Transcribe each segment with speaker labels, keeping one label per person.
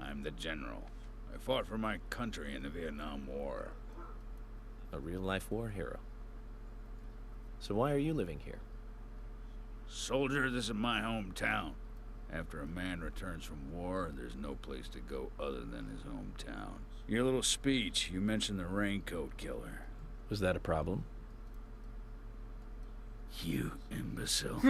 Speaker 1: I'm the general. I fought for my country in the Vietnam War.
Speaker 2: A real life war hero. So why are you living here?
Speaker 1: Soldier, this is my hometown. After a man returns from war, there's no place to go other than his hometown. Your little speech, you mentioned the raincoat killer.
Speaker 2: Was that a problem?
Speaker 1: You imbecile.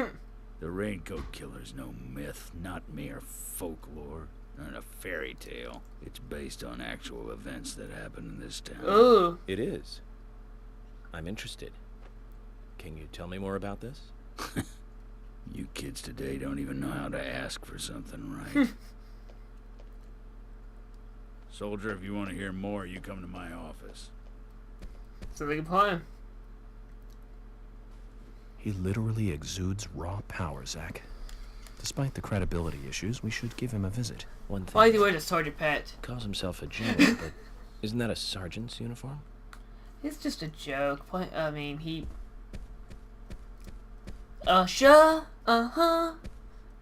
Speaker 1: the raincoat killer's no myth, not mere folklore, not a fairy tale. It's based on actual events that happened in this town.
Speaker 3: Ooh.
Speaker 2: It is. I'm interested. Can you tell me more about this?
Speaker 1: You kids today don't even know how to ask for something right. Soldier, if you want to hear more, you come to my office.
Speaker 3: Sounds like a plan.
Speaker 4: He literally exudes raw power, Zach. Despite the credibility issues, we should give him a visit.
Speaker 2: One thing.
Speaker 3: Why do you wear a sergeant pet?
Speaker 2: Calls himself a general, but isn't that a sergeant's uniform?
Speaker 3: It's just a joke. Play, I mean, he. Uh, sure. Uh huh.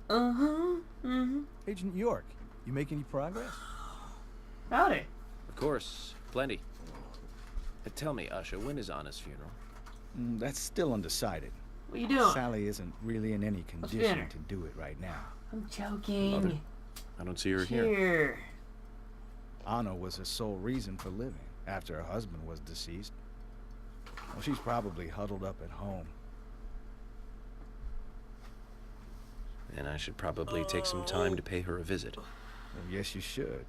Speaker 3: Uh huh. Mhm.
Speaker 5: Agent York, you make any progress?
Speaker 3: Howdy.
Speaker 2: Of course, plenty. But tell me, Usha, when is Anna's funeral?
Speaker 5: Mm, that's still undecided.
Speaker 3: What you doing?
Speaker 5: Sally isn't really in any
Speaker 3: Let's be in
Speaker 5: condition
Speaker 3: her.
Speaker 5: to do it right now.
Speaker 3: I'm joking.
Speaker 2: Mother, I don't see her here.
Speaker 3: Here.
Speaker 5: Anna was her sole reason for living after her husband was deceased. Well, she's probably huddled up at home.
Speaker 2: And I should probably take some time to pay her a visit.
Speaker 5: Well, yes, you should.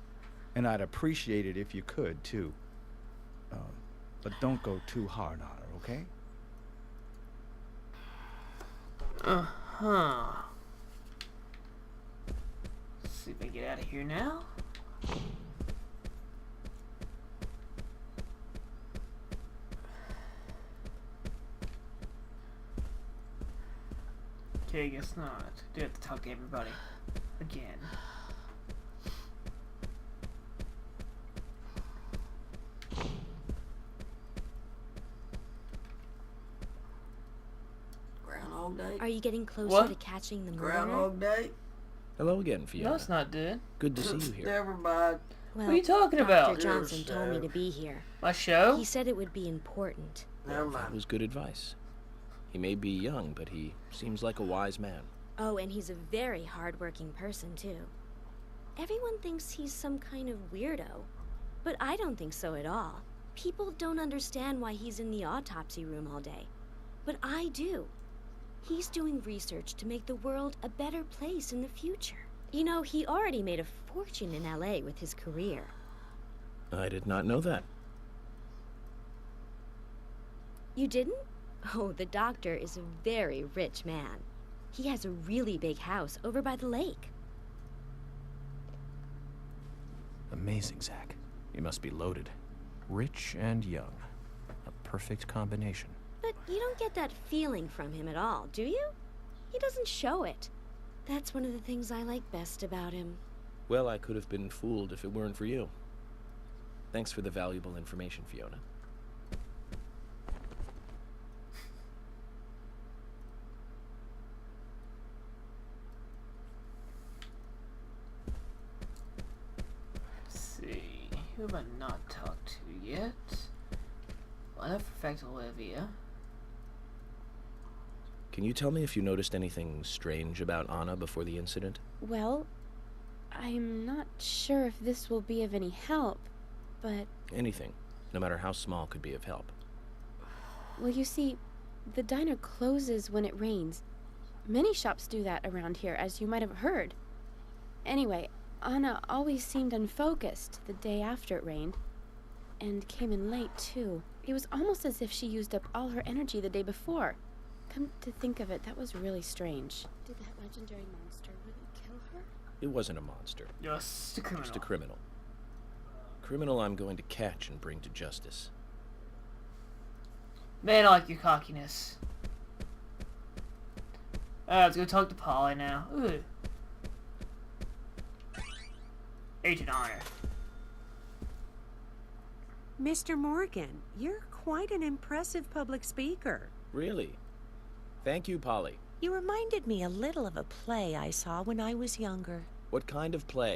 Speaker 5: And I'd appreciate it if you could, too. Um, but don't go too hard on her, okay?
Speaker 3: Huh. Let's see if I can get out of here now. Okay, I guess not. Do have to talk to everybody again.
Speaker 6: Groundhog Day.
Speaker 7: Are you getting closer
Speaker 3: What?
Speaker 7: to catching the murderer?
Speaker 6: Groundhog Day.
Speaker 2: Hello again, Fiona.
Speaker 3: No, it's not good.
Speaker 2: Good to see you here.
Speaker 6: Never mind.
Speaker 7: Well,
Speaker 3: What are you talking
Speaker 7: Dr.
Speaker 3: about?
Speaker 7: Johnson told me
Speaker 6: Yourself.
Speaker 7: to be here.
Speaker 3: My show?
Speaker 7: He said it would be important.
Speaker 6: Never
Speaker 2: That
Speaker 6: mind.
Speaker 2: was good advice. He may be young, but he seems like a wise man.
Speaker 7: Oh, and he's a very hardworking person, too. Everyone thinks he's some kind of weirdo, but I don't think so at all. People don't understand why he's in the autopsy room all day, but I do. He's doing research to make the world a better place in the future. You know, he already made a fortune in LA with his career.
Speaker 2: I did not know that.
Speaker 7: You didn't? Oh, the doctor is a very rich man. He has a really big house over by the lake.
Speaker 4: Amazing, Zach. You must be loaded. Rich and young. A perfect combination.
Speaker 7: But you don't get that feeling from him at all, do you? He doesn't show it. That's one of the things I like best about him.
Speaker 2: Well, I could have been fooled if it weren't for you. Thanks for the valuable information, Fiona.
Speaker 3: Let's see. Who have I not talked to yet? Well, I know for a fact Olivia.
Speaker 2: Can you tell me if you noticed anything strange about Anna before the incident?
Speaker 8: Well, I'm not sure if this will be of any help, but,
Speaker 2: Anything, no matter how small, could be of help.
Speaker 8: well, you see, the diner closes when it rains. Many shops do that around here, as you might have heard. Anyway, Anna always seemed unfocused the day after it rained, and came in late, too. It was almost as if she used up all her energy the day before. Come to think of it, that was really strange. Did that legendary monster really kill her?
Speaker 2: It wasn't a monster,
Speaker 3: Just a criminal.
Speaker 2: just a criminal. Criminal I'm going to catch and bring to justice.
Speaker 3: Man, I like your cockiness. Alright, let's go talk to Polly now. Ooh. Agent Honor.
Speaker 9: Mr. Morgan, you're quite an impressive public speaker.
Speaker 2: Really? Thank you, Polly.
Speaker 9: You reminded me a little of a play I saw when I was younger.
Speaker 2: What kind of play?